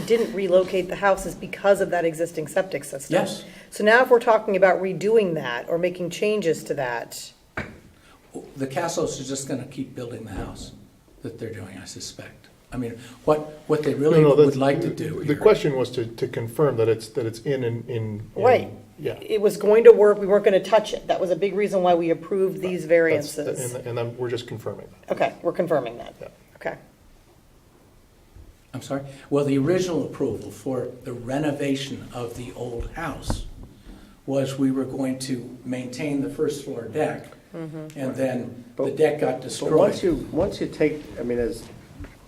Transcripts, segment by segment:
didn't relocate the houses because of that existing septic system. Yes. So now if we're talking about redoing that or making changes to that, The Castles are just gonna keep building the house that they're doing, I suspect. I mean, what, what they really No, no, would that's- like to do The here. question was to, to confirm that it's, that it's in and in. in- Right. Yeah. it was going to work, we weren't going to touch it. That was a big reason why we approved these That's- variances. And, and then we're just confirming. Okay, we're confirming that. Yeah. Okay. I'm sorry? Well, the original approval for the renovation of the old house was we were going to maintain the first floor deck, and then the But- deck got But once destroyed. you, once you take, I mean, as,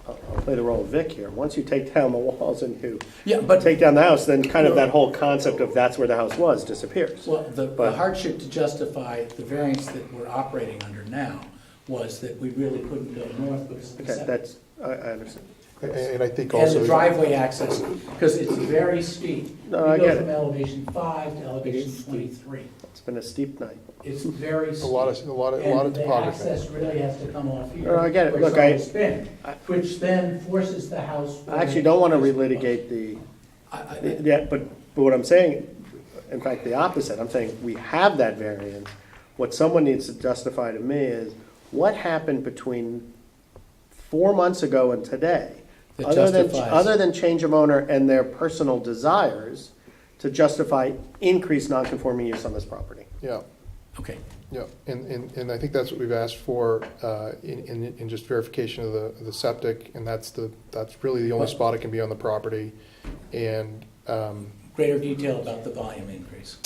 I'll I'll play the role of Vic here, once you take down the walls and you Yeah, but, take down the house, then kind of that whole concept of that's where the house was disappears. well, the- the But- hardship to justify the variance that we're operating under now was that we really couldn't go north because of the Okay, septic. that's, I, I understand. And, and I think And also. the driveway access, because it's very steep. No, I get We go from it. elevation five to elevation steep. twenty-three. It's been a steep night. It's very steep. A lot of, a lot of, a lot of And the topography. access really has to come off here. No, I get it. where it's Look, I- always been, Which then forces the house. I actually don't want to relitigate the, I- I- yeah, but, but what I'm saying, in fact, the opposite, I'm saying we have that variance. What someone needs to justify to me is what happened between four months ago and today? That other than- justifies- Other than change of owner and their personal desires to justify increased non-conforming use on this property. Yeah, Okay, yeah. And, and, and I think that's what we've asked for, uh, in, in, in just verification of the, of the septic. And that's the, that's really the only spot it can be on the property. And, um, greater detail about the volume increase.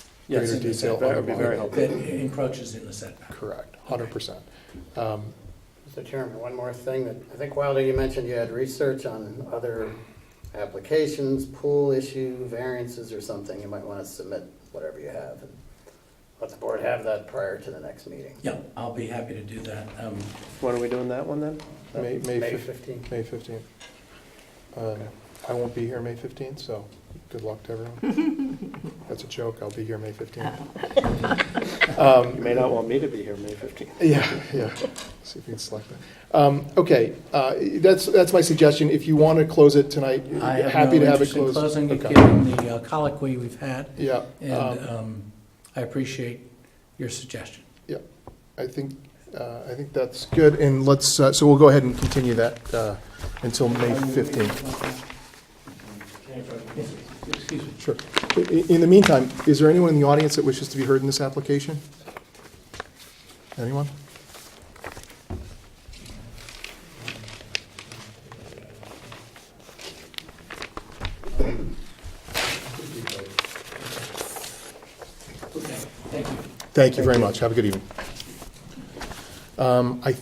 That's Yes. in the Greater setback. detail on the That would be very volume. That encroaches in the setback. correct, hundred percent. Um, Mr. Chairman, one more thing that, I think Wilder, you mentioned you had research on other applications, pool issue, variances or something. You might want to submit whatever you have. and Let the board have that prior to the next meeting. Yeah, I'll be happy to do that. Um, When are we doing that one then? May, May May fif- 15th. May fifteenth. Um, I won't be here May fifteenth, so good luck to everyone. That's a joke, I'll be here May fifteenth. You may not want me to be here May fifteenth. Yeah, yeah, see if we can select that. Um, okay, uh, that's, that's my suggestion, if you want to close it tonight, I have happy no to have it interest in closed. closing it, Okay. given the uh, colloquy we've had. Yeah, um, And um, I appreciate your suggestion. yeah, I think, uh, I think that's good, and let's, uh, so we'll go ahead and continue that, uh, until May fifteenth. Excuse me. Sure. I- i- In the meantime, is there anyone in the audience that wishes to be heard in this application? Anyone? Okay, thank you. Thank you very much. Have a good evening. Um, I,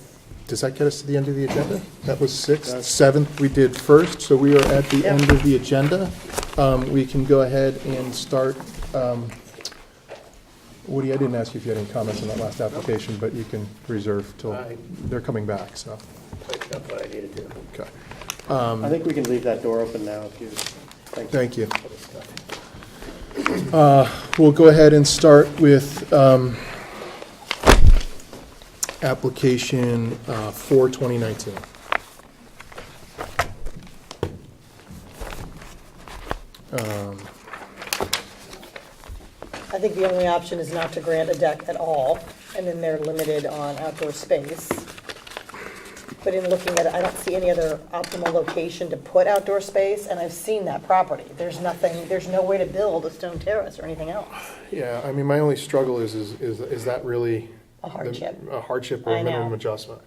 does that get us to the end of the agenda? That was sixth. Seventh, we did first, so we are at the end of the agenda. Um, we can go ahead and start, um, Woody, I didn't ask you if you had any comments on that last application, but you can reserve till, Aye. they're coming back, so, That's what I needed to. okay. I think we can leave that door open now if you, thank you. Thank you. Uh, We'll go ahead and start with um, application uh, for 2019. Um, I think the only option is not to grant a deck at all, and then they're limited on outdoor space. But in looking at it, I don't see any other optimal location to put outdoor space, and I've seen that property. There's nothing, there's no way to build a stone terrace or anything else. Yeah, I mean, my only struggle is, is, is is that really? A hardship. the- A hardship or I a know. minimum adjustment?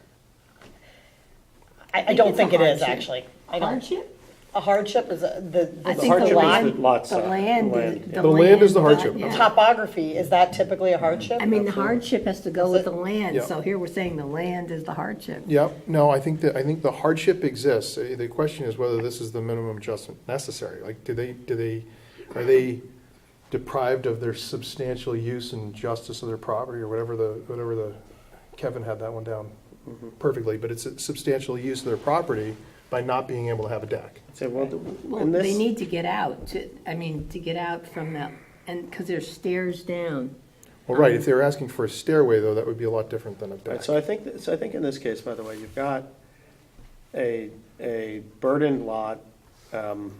I, I don't it's a think it is, hardship. actually. I don't- Hardship? A hardship is a- the, the The I think the hardship is land. the lot size, the land, land, yeah. the- The the land is the but- hardship. yeah. topography, is that typically a hardship? I mean, the hardship has to go with the land, Yeah. so here we're saying the land is the hardship. Yep, no, I think that, I think the hardship exists. Uh, The question is whether this is the minimum adjustment necessary. Like, do they, do they, are they deprived of their substantial use and justice of their property or whatever the, whatever the, Kevin had that one down perfectly, but it's a substantial use of their property by not being able to have a deck. So, well, the- Well, and they this- need to get out, to, I mean, to get out from that, and, because there's stairs down. Well, right, if they were asking for a stairway though, that would be a lot different than a Right, deck. so I think, so I think in this case, by the way, you've got a, a burdened lot, um,